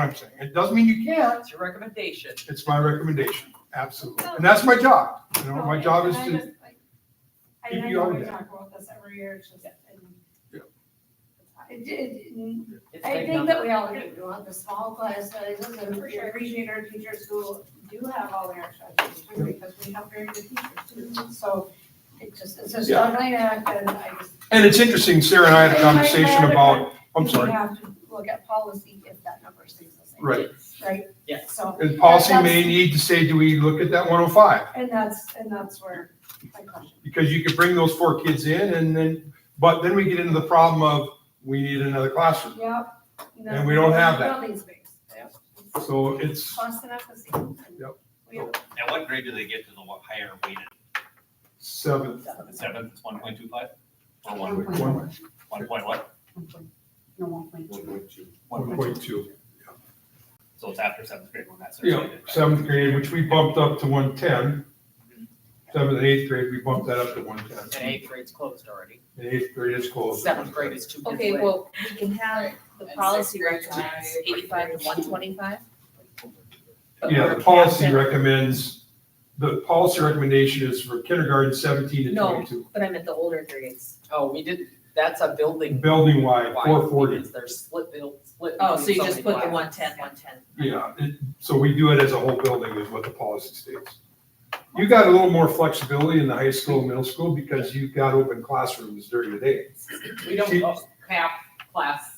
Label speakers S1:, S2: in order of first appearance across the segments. S1: I'm saying. It doesn't mean you can't.
S2: It's your recommendation.
S1: It's my recommendation, absolutely. And that's my job. You know, my job is
S3: Oh. And I
S1: to,
S3: just, like, I-
S1: keep
S3: I
S1: you
S3: know
S1: on
S3: we
S1: that.
S3: talk about this every year, it's just, and.
S1: Yeah.
S3: It did,
S2: It's
S3: I
S2: big
S3: think
S2: numbers.
S3: that we all do, we want the small class sizes, and we appreciate our teachers who do have all their extra teachers, too, because we have very good teachers too, so. It just, it's a struggling act, and I just.
S1: and it's interesting, Sarah and I had a conversation about, I'm
S3: We
S1: sorry,
S3: have to look at policy if that number stays the same.
S1: right.
S3: Right?
S2: Yes.
S3: So,
S1: And policy may need to say, do we look at that 105?
S3: and that's, and that's where my question.
S1: Because you could bring those four kids in and then, but then we get into the problem of, we need another classroom.
S3: Yep.
S1: And we don't have that.
S3: Building space. Yep.
S1: So it's,
S3: Cost and efficacy.
S1: Yep.
S3: We have
S4: At what grade do they get to the wa- higher weighted?
S1: Seven.
S4: The seventh, it's one point two five? Or one,
S1: One
S4: one point what?
S5: No, one point two.
S4: One point,
S1: point two.
S4: so it's after seventh grade when that's.
S1: Yeah, seventh grade, which we bumped up to one ten. Seventh and eighth grade, we bumped that up to one
S2: And
S1: ten.
S2: eighth grade's closed already.
S1: And eighth grade is closed.
S2: Seventh grade is two.
S6: Okay, well, we can have the
S5: And
S6: policy
S5: sixth grade,
S6: recommends
S5: five.
S6: eighty-five to one twenty-five.
S1: Yeah, the policy recommends, the policy recommendation is for kindergarten seventeen to
S6: No.
S1: twenty-two.
S6: But I'm at the older grades.
S2: Oh, we did, that's a building.
S1: Building wide,
S2: wide
S1: four forty,
S2: because They're split, build split.
S6: Oh, so you
S2: between
S6: just
S2: many
S6: put the
S2: classes.
S6: one-ten, one-ten.
S1: yeah, it- so we do it as a whole building is what the policy states. You got a little more flexibility in the high school and middle school because you've got open classrooms during the day.
S2: We don't have class.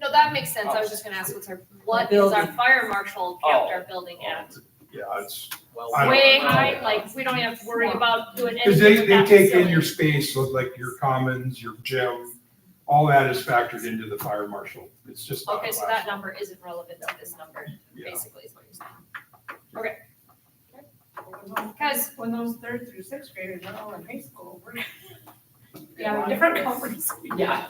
S7: No, that makes sense.
S2: Oh.
S7: I was just gonna ask, what's our, what is our
S6: Building.
S7: fire marshal capped our building at?
S1: Yeah, it's,
S2: Well,
S1: Oh. I don't-
S7: Way
S1: I don't-
S7: high, like, we don't have to worry about doing
S1: because
S7: anything
S1: they,
S7: with
S1: they
S7: that
S1: take in your
S7: facility.
S1: space, so like your commons, your gym, all that is factored into the fire marshal. It's just not
S7: Okay, so
S1: class-
S7: that number isn't relevant to this number,
S1: yeah.
S7: basically, is what you're saying.
S3: Because when those third through sixth graders are all in high school, we're. Yeah, different conferences.
S2: Yeah.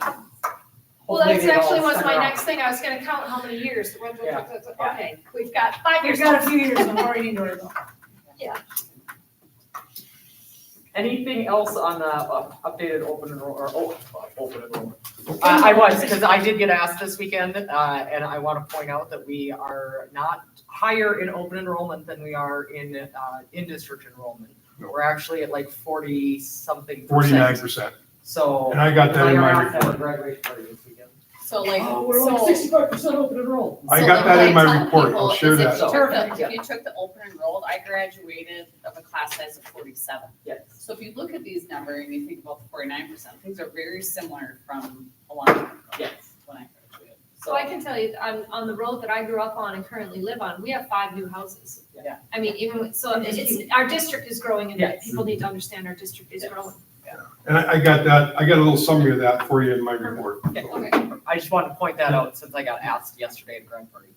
S7: Well, that's
S2: Hopefully they all
S7: actually was my
S2: center
S7: next thing. I was gonna count how many years.
S2: Yeah.
S7: Okay, we've got five
S3: We've
S7: years.
S3: got a few years of already doing that.
S2: Anything else on the uh, updated open enroll, or, oh, uh, open enrollment? Uh, I, I was, because I did get asked this weekend, uh, and I want to point out that we are not higher in open enrollment than we are in, uh, in-district enrollment.
S1: No.
S2: We're actually at like forty-something
S1: Forty-nine
S2: percent.
S1: percent,
S2: So.
S1: and I got that in
S2: Right
S1: my
S2: around that
S1: report.
S2: Graduation party this weekend. Um,
S6: So like,
S2: sixty-five percent open enrollment.
S1: I
S6: So
S1: got
S6: like
S1: that
S6: what
S1: in my
S6: tell
S1: report. I'll
S6: people
S1: share
S6: is
S1: that.
S6: If you took the-
S2: Perfect.
S6: if you took the open enrolled, I graduated of a class size of forty-seven.
S2: Yes.
S5: So if you look at these numbers and you think about the forty-nine percent, things are very similar from a long time ago.
S2: Yes.
S5: When I graduated.
S7: So I can tell you, on, on the road that I grew up on and currently live on, we have five new houses.
S2: Yeah.
S7: I mean, even, with- so it's, our district is growing and
S2: Yes.
S7: people need to understand our district is
S2: Yes.
S7: growing.
S1: And I, I got that, I got a little summary of that for you in my report.
S2: I just wanted to point that out since I got asked yesterday at the grand party.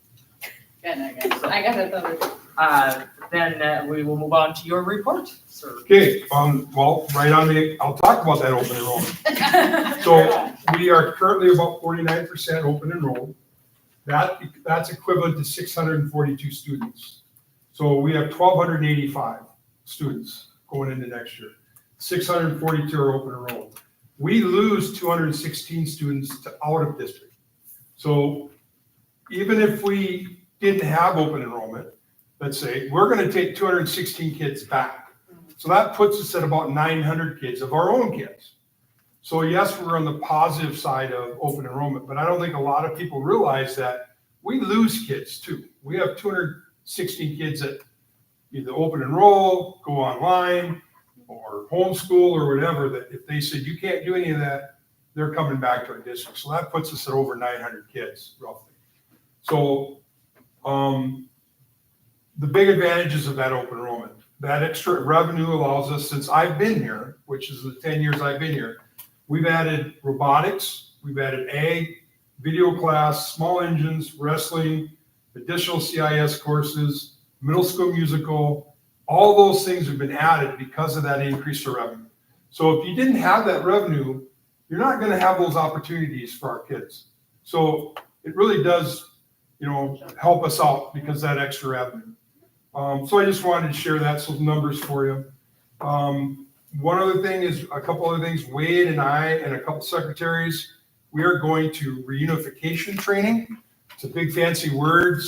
S5: Good, I got, I got that the other day.
S2: Uh, then uh, we will move on to your report, sir.
S1: Okay, um, well, right on the, I'll talk about that open enrollment. So we are currently about forty-nine percent open enrolled. That, that's equivalent to six hundred and forty-two students. So we have twelve hundred and eighty-five students going into next year. Six hundred and forty-two are open enrolled. We lose two hundred and sixteen students to out of district. So even if we didn't have open enrollment, let's say, we're gonna take two hundred and sixteen kids back. So that puts us at about nine hundred kids of our own kids. So yes, we're on the positive side of open enrollment, but I don't think a lot of people realize that we lose kids too. We have two hundred sixteen kids that either open enroll, go online, or homeschool or whatever, that if they said, you can't do any of that, they're coming back to our district. So that puts us at over nine hundred kids roughly. So, um, the big advantages of that open enrollment. That extra revenue allows us, since I've been here, which is the ten years I've been here, we've added robotics, we've added ag, video class, small engines, wrestling, additional CIS courses, middle school musical. All those things have been added because of that increase in revenue. So if you didn't have that revenue, you're not gonna have those opportunities for our kids. So it really does, you know, help us out because of that extra revenue. Um, so I just wanted to share that, some numbers for you. Um, one other thing is, a couple other things, Wade and I and a couple secretaries, we are going to reunification training. It's a big fancy word,